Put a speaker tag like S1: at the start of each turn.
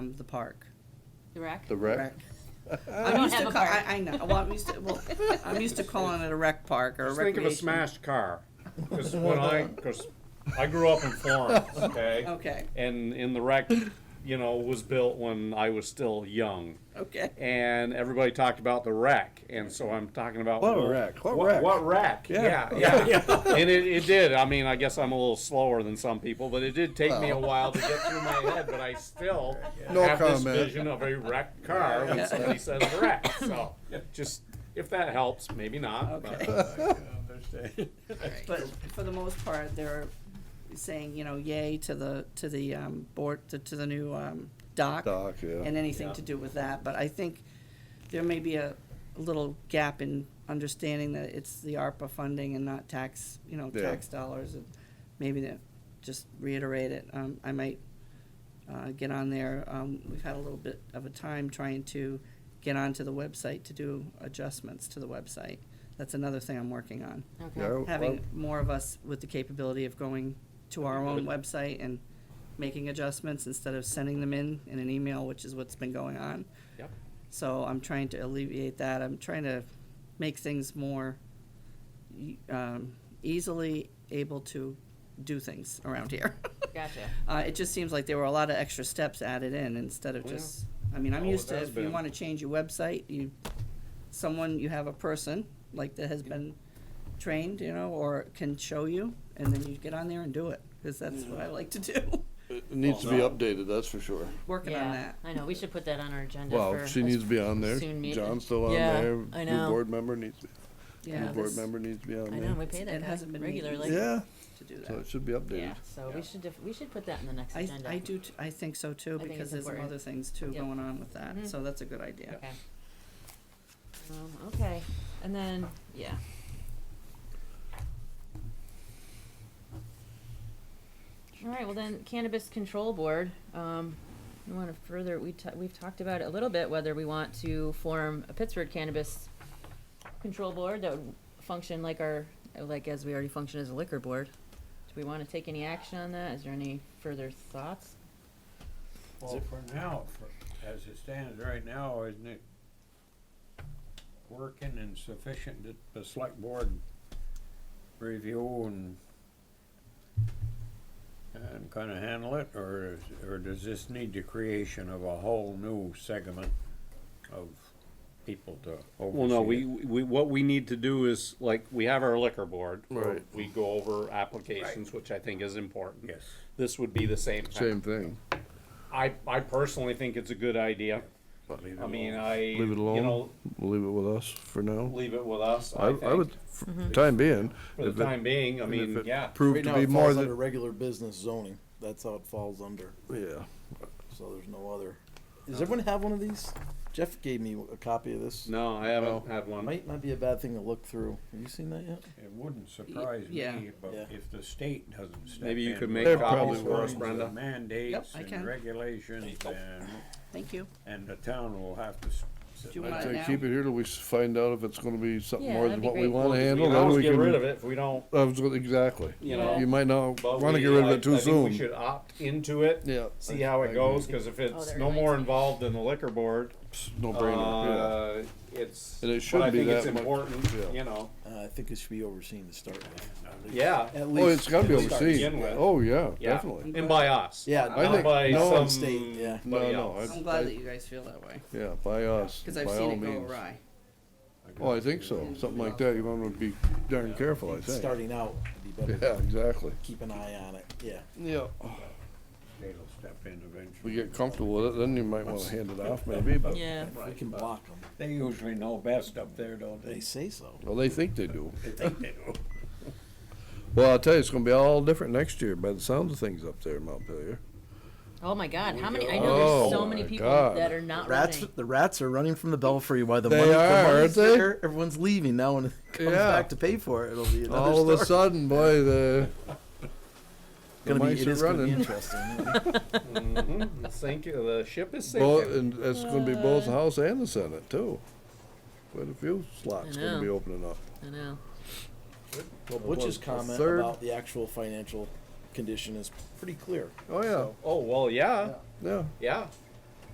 S1: um, the park.
S2: The rec?
S3: The rec?
S1: I'm
S2: don't
S1: used
S2: have
S1: to
S2: a
S1: call-
S2: park.
S1: I, I know, well, I'm used to, well, I'm used to calling it a rec park or a
S4: Just think of
S1: recreation.
S4: a smashed car. Because when I, because I grew up in Florence, okay?
S1: Okay,
S4: And, and the wreck, you know, was built when I was still young.
S1: okay.
S4: And everybody talked about the wreck, and so I'm talking about.
S3: What
S4: well,
S3: wreck? What
S4: What,
S3: wreck?
S4: what wreck? Yeah, yeah. And it, it did, I mean, I guess I'm a little slower than some people, but it did take me a while to get through my head, but I still
S3: No
S4: have this
S3: comment.
S4: vision of a wrecked car when somebody says wreck, so, just, if that helps, maybe not, but.
S1: Okay. But for the most part, they're saying, you know, yay to the, to the, um, board, to, to the new, um, dock.
S3: Dock, yeah.
S1: And anything
S4: Yeah.
S1: to do with that, but I think there may be a little gap in understanding that it's the ARPA funding and not tax, you know,
S3: Yeah.
S1: tax dollars. and Maybe to just reiterate it, um, I might, uh, get on there, um, we've had a little bit of a time trying to get onto the website to do adjustments to the website. That's another thing I'm working on
S2: Okay.
S3: Yeah, well,
S1: having more of us with the capability of going to our own website and making adjustments instead of sending them in in an email, which is what's been going on.
S4: Yep.
S1: So I'm trying to alleviate that. I'm trying to make things more e- um, easily able to do things around here.
S2: Gotcha.
S1: Uh, it just seems like there were a lot of extra steps added in instead of
S4: Oh, yeah.
S1: just, I mean, I'm
S4: Oh, it
S1: used to,
S4: has
S1: if you
S4: been.
S1: wanna change your website, you, someone, you have a person, like that has been trained, you know, or can show you, and then you get on there and do it, cause that's what I like to do,
S3: It needs to be updated, that's for sure.
S1: working on
S2: Yeah,
S1: that.
S2: I know, we should put that on our agenda
S3: Well,
S2: for.
S3: she needs to be on there.
S2: soon meet-
S3: John's still on
S2: Yeah,
S3: there.
S2: I
S3: New
S2: know.
S3: board member needs, to be- new
S1: Yeah,
S3: board
S1: this-
S3: member needs to be on
S2: I
S3: there.
S2: know, we pay
S1: It
S2: that guy
S1: hasn't been meeting.
S2: regularly.
S3: Yeah,
S1: to do
S3: so
S1: that.
S3: it should be
S2: Yeah,
S3: updated.
S2: so we should, def- we should put that in the next
S1: I,
S2: agenda.
S1: I do, t- I think so too,
S2: think
S1: because
S2: it's
S1: there's some
S2: important.
S1: other things too
S2: Yep.
S1: going on with that,
S2: Mhm.
S1: so that's a good idea.
S2: Okay. Um, okay, and then, yeah. All right, well then cannabis control board, um, we wanna further, we ta- we've talked about it a little bit, whether we want to form a Pittsburgh cannabis control board that would function like our, like as we already function as a liquor board. Do we wanna take any action on that? Is there any further thoughts?
S5: Well, for now, for, as it stands right now, isn't it working and sufficient that the select board review and and kinda handle it, or is, or does this need the creation of a whole new segment of people to oversee
S4: Well, no, we,
S5: it?
S4: we, what we need to do is, like, we have our liquor board. where
S3: Right.
S4: We go over applications, which I think is important.
S5: Yes.
S4: This would be the same
S3: Same
S4: thing.
S3: thing.
S4: I, I personally think it's a good idea. I mean, I, you
S3: Leave it alone,
S4: know,
S3: we'll leave it with us for now.
S4: leave it with us,
S3: I,
S4: I
S3: I would,
S4: think,
S3: for
S2: Mm-hmm.
S3: time being.
S4: for
S3: if
S4: the
S3: it-
S4: time being, I
S3: and if
S4: mean,
S3: it
S4: yeah.
S3: Proved
S6: Right
S3: to
S6: now,
S3: be
S6: it
S3: more
S6: falls under
S3: than,
S6: regular business zoning. That's how it falls under,
S3: yeah.
S6: so there's no other. Does everyone have one of these? Jeff gave me a copy of this.
S4: No, I haven't had one.
S6: Might, might be a bad thing to look through. Have you seen that yet?
S5: It wouldn't surprise
S1: yeah.
S5: me, but
S6: Yeah.
S5: if the state doesn't step in.
S4: Maybe you could
S5: with
S4: make
S3: There
S4: copies
S3: probably
S4: for us,
S5: signs and
S4: Brenda.
S5: Mandates
S1: I can.
S5: and regulations and
S1: Thank you.
S5: And the town will have to. s- sit
S1: Do you
S5: back.
S1: want
S3: I'd
S1: it
S3: say
S1: now?
S3: keep it here till we s- find out if it's gonna be something
S2: Yeah,
S3: more
S2: that'd
S3: than
S2: be
S3: what we
S2: great.
S3: wanna
S4: We
S3: handle,
S4: can
S3: then
S4: always
S3: we
S4: get rid of
S3: can.
S4: it if we don't,
S3: I was gonna- Exactly.
S4: you know.
S3: You might not
S4: but
S3: wanna
S4: we-
S3: get rid of
S4: I-
S3: it too
S4: I think
S3: soon.
S4: We should opt into it.
S3: Yeah.
S4: See how it goes, cause if it's
S2: there
S4: no
S2: it is.
S4: more involved than the liquor board,
S3: No brainer, yeah.
S4: uh, it's.
S3: And it
S4: but I
S3: shouldn't be
S4: think it's
S3: that much- yeah.
S4: important, you know,
S6: Uh, I think it should be overseen to start with.
S4: yeah,
S6: At
S3: Oh, it's gotta be
S6: at least.
S3: overseen.
S4: begin with.
S3: Oh, yeah,
S4: Yeah.
S3: definitely.
S4: and by us.
S6: Yeah,
S3: I
S4: Not
S3: think-
S4: by
S3: no,
S4: some.
S6: state, yeah.
S3: No,
S4: buddy
S3: no,
S4: else.
S1: I'm
S3: I,
S1: glad that
S3: I,
S1: you guys feel that
S2: Mm-hmm.
S1: way,
S3: yeah, by us,
S1: cause
S3: by
S1: I've seen
S3: all
S1: it go
S3: means.
S1: awry.
S3: Oh, I think so,
S6: Mm-hmm.
S3: something like that, you wanna be darn careful, Oh, I think.
S6: Starting out would be better.
S3: Yeah, exactly.
S6: Keep an eye on it. Yeah.
S3: Yeah.
S5: State will step in
S3: We
S5: eventually.
S3: get comfortable with it, then you might wanna hand it off maybe, but,
S2: Yeah.
S6: We can block them.
S5: They usually know best up there, don't
S6: They say so.
S3: well, they think they do.
S5: They think they do.
S3: Well, I'll tell you, it's gonna be all different next year by the sound of things up there in Montpelier.
S2: Oh my God, how many, I know there's so
S3: Oh
S2: many
S3: my
S2: people
S3: God.
S2: that are not running.
S6: Rats, the rats are running from the belfry. Why the
S3: They
S6: money?
S3: are,
S6: the money's
S3: aren't they?
S6: there, Everyone's leaving now, and it comes
S3: Yeah.
S6: back to pay for it. It'll be another
S3: All
S6: story.
S3: of a sudden, boy, the, the
S6: gonna be,
S3: mice
S6: it
S3: are
S6: is gonna be
S3: running.
S6: interesting.
S4: Mhm, the sink, the ship is
S3: Both,
S4: sinking.
S3: and that's gonna be both the House and the Senate too. Quite a few slots
S2: I
S3: gonna be
S2: know.
S3: opening up.
S2: I know.
S6: Well,
S3: Well,
S6: Butch's
S3: a
S6: comment
S3: third-
S6: about the actual financial condition is pretty clear.
S3: Oh, yeah,
S4: Oh, well, yeah,
S3: yeah.
S4: yeah,